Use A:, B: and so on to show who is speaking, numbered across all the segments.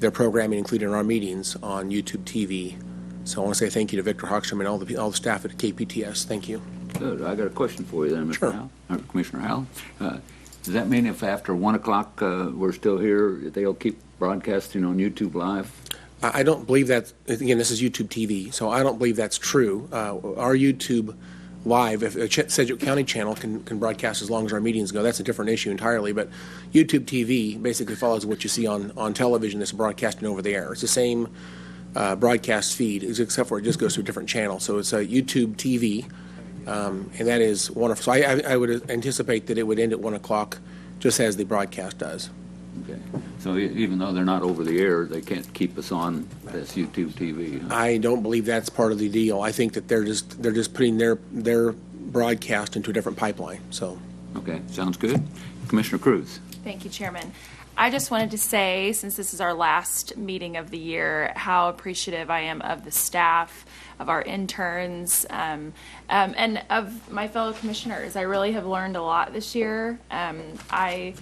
A: their programming, including our meetings, on YouTube TV. So I want to say thank you to Victor Hockstrom and all the, pe- all the staff at KPTS. Thank you.
B: Good, I got a question for you then,
A: Sure.
B: Mr. Howell, or Commissioner Howell. Uh, Does that mean if after 1 o'clock uh, we're still here, they'll keep broadcasting on YouTube Live?
A: I, I don't believe that, again, this is YouTube TV, so I don't believe that's true. Uh, our YouTube live, if, uh, Ch- Sedgwick County channel can, can broadcast as long as our meetings go. That's a different issue entirely, but YouTube TV basically follows what you see on, on television that's broadcasting over the air. It's the same uh, broadcast feed, ex- except for it just goes to a different channel. So it's uh, YouTube TV, um, and that is wonderful. So I, I, I would anticipate that it would end at 1 o'clock, just as the broadcast does.
B: Okay, so e- even though they're not over the air, they can't keep us on this YouTube TV? huh?
A: I don't believe that's part of the deal. I think that they're just, they're just putting their, their broadcast into a different pipeline, so.
B: Okay, sounds good. Commissioner Cruz?
C: Thank you, Chairman. I just wanted to say, since this is our last meeting of the year, how appreciative I am of the staff, of our interns, um, um, and of my fellow commissioners. I really have learned a lot this year. Um, I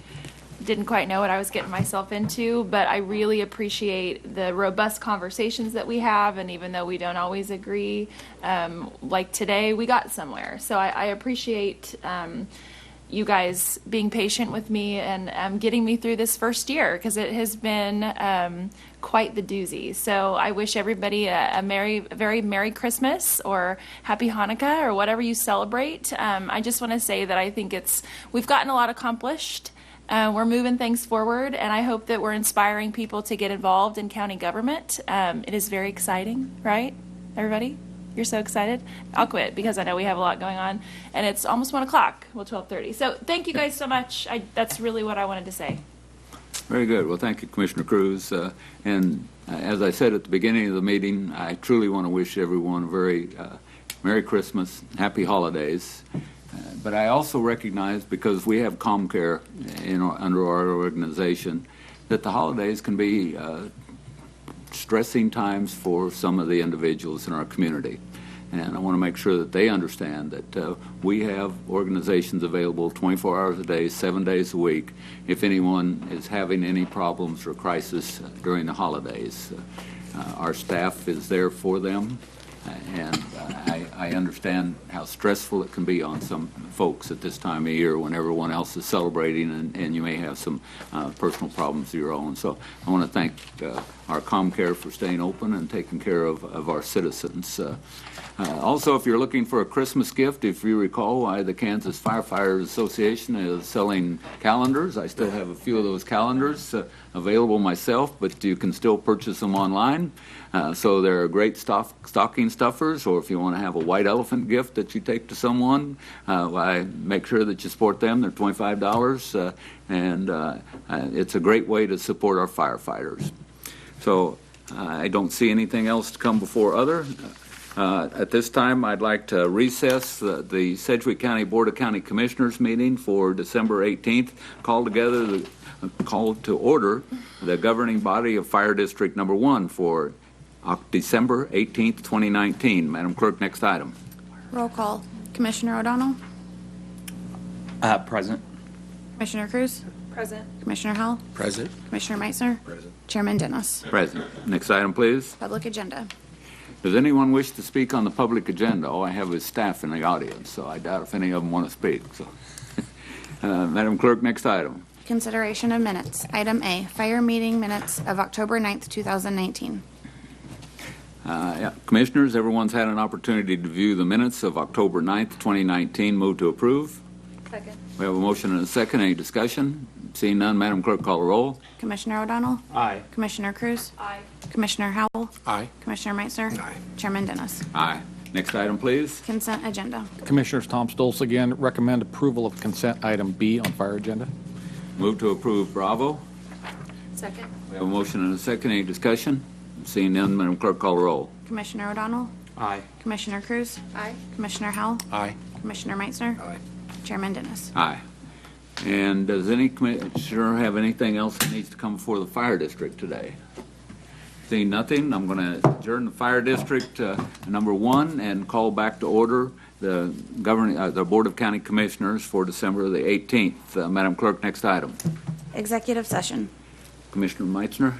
C: didn't quite know what I was getting myself into, but I really appreciate the robust conversations that we have. And even though we don't always agree, um, like today, we got somewhere. So I, I appreciate um, you guys being patient with me and um, getting me through this first year because it has been um, quite the doozy. So I wish everybody a, a merry, a very merry Christmas or happy Hanukkah or whatever you celebrate. Um, I just want to say that I think it's we've gotten a lot accomplished. Uh, we're moving things forward, and I hope that we're inspiring people to get involved in county government. Um, it is very exciting, right? Everybody, you're so excited. I'll quit because I know we have a lot going on, and it's almost one o'clock. Well, twelve thirty. So thank you guys so much. I, that's really what I wanted to say.
B: Very good. Well, thank you, Commissioner Cruz. Uh, And uh, as I said at the beginning of the meeting, I truly want to wish everyone a very uh, Merry Christmas, Happy Holidays. Uh, But I also recognize, because we have ComCare in, our- under our organization, that the holidays can be uh, stressing times for some of the individuals in our community. And I want to make sure that they understand that uh, we have organizations available 24 hours a day, seven days a week, if anyone is having any problems or crisis during the holidays. Uh, Our staff is there for them, Uh, and I I understand how stressful it can be on some folks at this time of year when everyone else is celebrating and and you may have some uh, personal problems of your own. So I want to thank uh, our ComCare for staying open and taking care of of our citizens. Uh, uh, Also, if you're looking for a Christmas gift, if you recall why the Kansas Firefighters Association is selling calendars, I still have a few of those calendars uh, available myself, but you can still purchase them online. Uh, So they're great stock- stocking stuffers, or if you want to have a white elephant gift that you take to someone, uh, why, make sure that you support them. They're $25, uh, and uh, uh, it's a great way to support our firefighters. So uh, I don't see anything else to come before other. Uh, At this time, I'd like to recess the- the Sedgwick County Board of County Commissioners meeting for December 18th, call together, the- uh, call to order the governing body of Fire District Number One for Oc- December 18th, 2019. Madam Clerk, next item.
D: Roll call. Commissioner O'Donnell?
E: Uh, present.
D: Commissioner Cruz?
C: Present.
D: Commissioner Howell?
A: President?
D: Commissioner Meitzner? Present. Chairman Dennis?
B: Present. Next item, please.
D: Public agenda.
B: Does anyone wish to speak on the public agenda? All I have is staff in the audience, so I doubt if any of them want to speak, so. Uh, Madam Clerk, next item.
D: Consideration of minutes. Item A, fire meeting minutes of October 9th, 2019.
B: Uh, yeah, Commissioners, everyone's had an opportunity to view the minutes of October 9th, 2019. Move to approve.
C: Second.
B: We have a motion and a second. Any discussion? Seeing none, Madam Clerk, call a roll.
D: Commissioner O'Donnell?
E: Aye.
D: Commissioner Cruz?
C: Aye.
D: Commissioner Howell?
A: Aye.
D: Commissioner Meitzner? Aye. Chairman Dennis?
B: Aye. Next item, please.
D: Consent agenda.
F: Commissioners, Tom Stolz again, recommend approval of consent item B on fire agenda.
B: Move to approve, Bravo.
C: Second.
B: We have a motion and a second. Any discussion? Seeing none, Madam Clerk, call a roll.
D: Commissioner O'Donnell?
E: Aye.
D: Commissioner Cruz?
C: Aye.
D: Commissioner Howell?
A: Aye.
D: Commissioner Meitzner? Aye. Chairman Dennis?
B: Aye. And does any commissioner have anything else that needs to come before the fire district today? Seeing nothing, I'm going to adjourn the fire district uh, number one and call back to order the governing, uh, the Board of County Commissioners for December the 18th. Uh, Madam Clerk, next item.
D: Executive session.
B: Commissioner Meitzner?